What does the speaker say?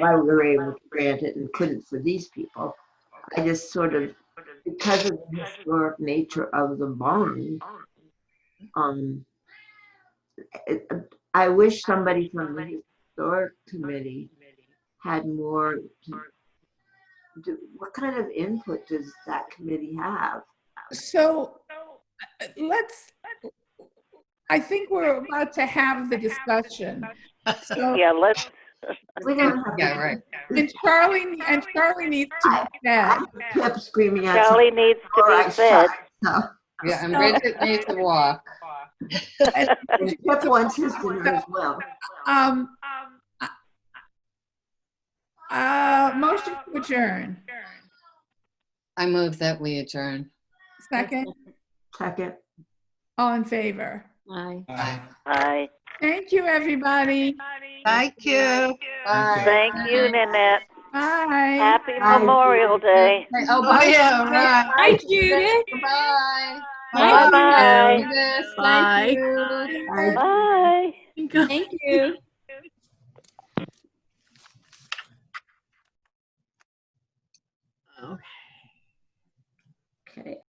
why we were able to grant it and couldn't for these people. I just sort of, because of the historic nature of the barn, um, it- I wish somebody from the historic committee had more. do- What kind of input does that committee have? So uh, let's, I think we're about to have the discussion. So, Yeah, let's, We don't have. Yeah, right. and Charlie, and Charlie needs to be fed. Kept screaming at. Charlie needs to Or I be fed. shot myself. Yeah, and Bridget needs to walk. Pip wants his dinner as well. Um, uh, Uh, motion to adjourn. I move that we adjourn. Second, Second. all in favor. Aye. Aye. Thank you, everybody. Thank you. Thank you, Nanette. Bye. Happy Bye. Memorial Day. Oh, Oh, bye. yeah, right. Hi, Judith. Bye. Bye. Bye-bye. Yes, thank Bye. you. Uh, Bye. Thank you. Okay.